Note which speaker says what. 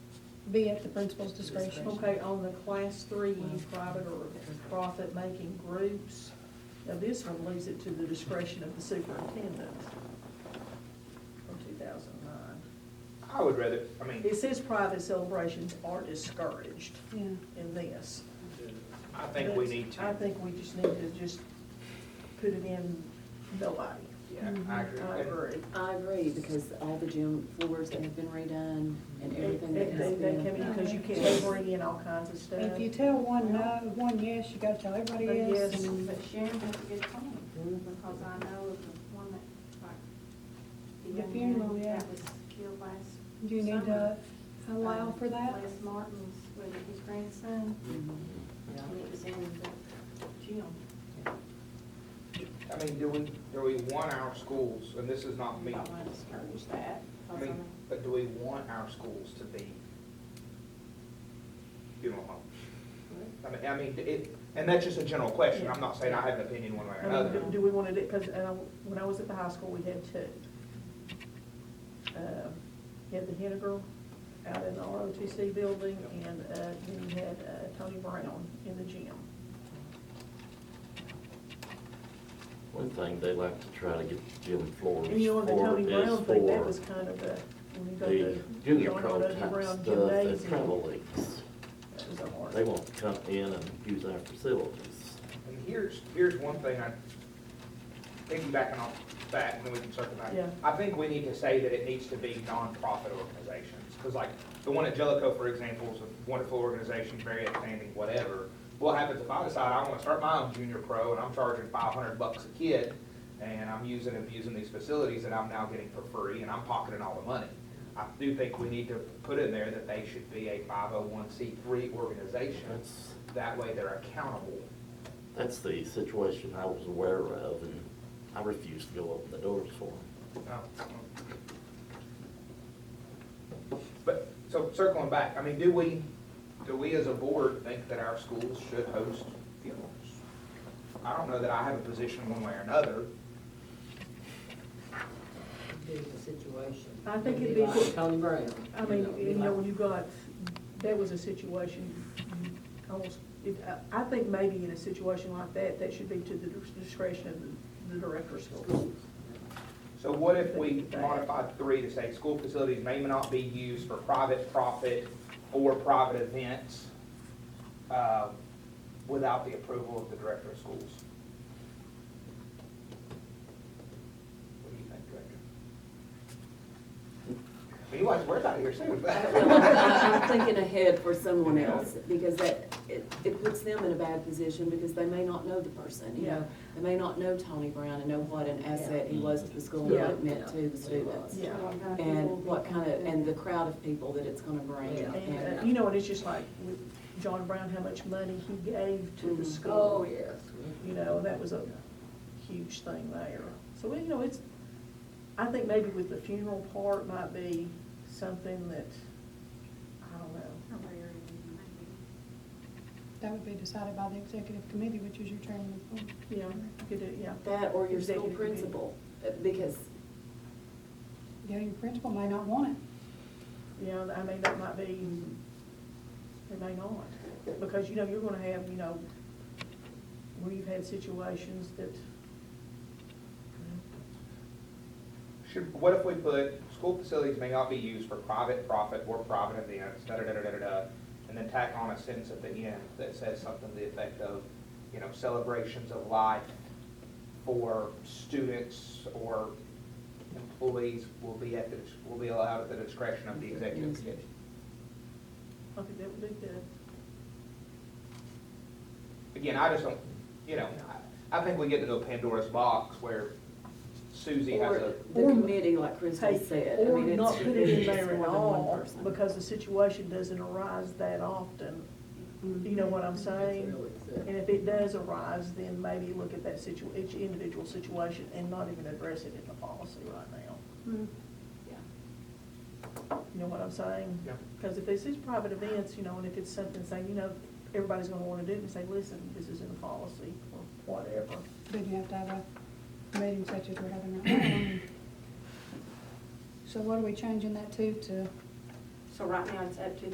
Speaker 1: be at the principal's discretion.
Speaker 2: Okay, on the class three, any private or profit-making groups, now this one leaves it to the discretion of the superintendent from two thousand nine.
Speaker 3: I would rather, I mean,
Speaker 2: It says private celebrations are discouraged
Speaker 1: Yeah.
Speaker 2: in this.
Speaker 3: I think we
Speaker 2: But
Speaker 3: need to.
Speaker 2: I think we just need to just put it in nobody.
Speaker 3: Yeah, I agree.
Speaker 2: Mm-hmm. I agree.
Speaker 4: I agree, because all the gym floors that have been redone and
Speaker 2: They,
Speaker 4: everything that has
Speaker 2: they they come
Speaker 4: been.
Speaker 2: in, because you can't bring in all kinds of stuff.
Speaker 1: If you tell one no, one yes, you gotta tell everybody
Speaker 2: But
Speaker 1: yes.
Speaker 2: yes.
Speaker 1: and-
Speaker 5: But Sharon has a good point, because I know of the one that, like,
Speaker 1: The
Speaker 5: the young
Speaker 1: funeral,
Speaker 5: man
Speaker 1: yeah.
Speaker 5: that was killed last.
Speaker 1: Do you need to
Speaker 5: summer,
Speaker 1: allow
Speaker 5: um,
Speaker 1: for that?
Speaker 5: Les Martin's, with his grandson, and it was in the gym.
Speaker 3: I mean, do we, do we want our schools, and this is not me,
Speaker 5: I want to discourage that,
Speaker 3: I
Speaker 5: 'cause I
Speaker 3: mean,
Speaker 5: mean,
Speaker 3: but do we want our schools to be funeral home? I mean, I mean, it, and that's just a general question, I'm not saying I have an opinion one way or
Speaker 2: I mean,
Speaker 3: another.
Speaker 2: do- do we want to do, because when I was at the high school, we had two. Um, You had the Henna Girl out in the ROTC building, and uh, then you had uh, Tony Brown in the gym.
Speaker 6: One thing they like to try to get the gym floors for
Speaker 2: And you know, the Tony
Speaker 6: is
Speaker 2: Brown thing, that was
Speaker 6: for
Speaker 2: kind of a, when you go
Speaker 6: the
Speaker 2: to.
Speaker 6: junior
Speaker 2: John
Speaker 6: pro
Speaker 2: Rodney
Speaker 6: type
Speaker 2: Brown
Speaker 6: stuff, the
Speaker 2: Gymnasium,
Speaker 6: travel leagues.
Speaker 2: that was a hard-
Speaker 6: They want to come in and use our facilities.
Speaker 3: And here's, here's one thing I, piggybacking off that, and then we can circle back.
Speaker 2: Yeah.
Speaker 3: I think we need to say that it needs to be nonprofit organizations, because like, the one at Jellicoe, for example, is a wonderful organization, very outstanding, whatever. What happens if I decide I want to start my own junior pro, and I'm charging five hundred bucks a kid, and I'm using and abusing these facilities that I'm now getting for free, and I'm pocketing all the money? I do think we need to put in there that they should be a five oh one C three organization,
Speaker 6: That's,
Speaker 3: that way they're accountable.
Speaker 6: that's the situation I was aware of, and I refuse to go open the doors for them.
Speaker 3: But, so circling back, I mean, do we, do we as a board think that our schools should host funerals? I don't know that I have a position one way or another.
Speaker 7: do the situation.
Speaker 2: I think it'd be good-
Speaker 7: like Tony Brown.
Speaker 2: I mean,
Speaker 7: it'd be
Speaker 2: you know,
Speaker 7: like-
Speaker 2: when you got, that was a situation, almost, it, I- I think maybe in a situation like that, that should be to the discretion of the- the director of schools.
Speaker 3: So what if we modified three to say, school facilities may not be used for private profit or private events, uh, without the approval of the director of schools? What do you think, Director? You watch, we're out of here soon.
Speaker 4: I'm thinking ahead for someone else, because that, it, it puts them in a bad position, because they may not know the person, you know? They may not know Tony Brown and know what an asset he was to the school and what it meant to the students.
Speaker 2: Yeah.
Speaker 4: And what kind of, and the crowd of people that it's gonna bring,
Speaker 2: And, uh,
Speaker 4: and,
Speaker 2: you know, and it's just like with John Brown, how much money he gave to the
Speaker 4: Mhm.
Speaker 7: Oh,
Speaker 2: school.
Speaker 7: yes.
Speaker 2: You know, that was a huge thing there. So, you know, it's, I think maybe with the funeral part might be something that, I don't know.
Speaker 5: not very early in the morning.
Speaker 1: That would be decided by the executive committee, which is your chairman of the board.
Speaker 2: Yeah, you could do, yeah.
Speaker 4: that or your school
Speaker 2: Executive committee.
Speaker 4: principal, uh, because
Speaker 1: Yeah, your principal may not want it.
Speaker 2: You know, I mean, that might be, it may not, because, you know, you're gonna have, you know, we've had situations that,
Speaker 3: Should, what if we put, school facilities may not be used for private profit or private events, da-da-da-da-da-da, and then tack on a sentence at the end that says something to the effect of, you know, celebrations of life for students or employees will be at the, will be allowed at the discretion of the executive committee.
Speaker 2: I think that would be good.
Speaker 3: Again, I just don't, you know, I, I think we get into a Pandora's box where Susie has
Speaker 4: Or
Speaker 3: a.
Speaker 4: the
Speaker 2: Or-
Speaker 4: committee, like Crystal said. I
Speaker 2: Or
Speaker 4: mean, it's-
Speaker 2: not put it in
Speaker 4: it's
Speaker 2: there
Speaker 4: more
Speaker 2: at
Speaker 4: than one
Speaker 2: all,
Speaker 4: person.
Speaker 2: because the situation doesn't arise that often, you know what I'm saying? And if it does arise, then maybe look at that situ, each individual situation and not even address it in the policy right now.
Speaker 4: Yeah.
Speaker 2: You know what I'm saying?
Speaker 3: Yeah.
Speaker 2: Because if it's these private events, you know, and if it's something saying, you know, everybody's gonna wanna do it, and say, listen, this is in the policy, or whatever.
Speaker 1: But you have to have a meeting such as we're having right now. So what are we changing that to, to?
Speaker 5: So right now, it's up to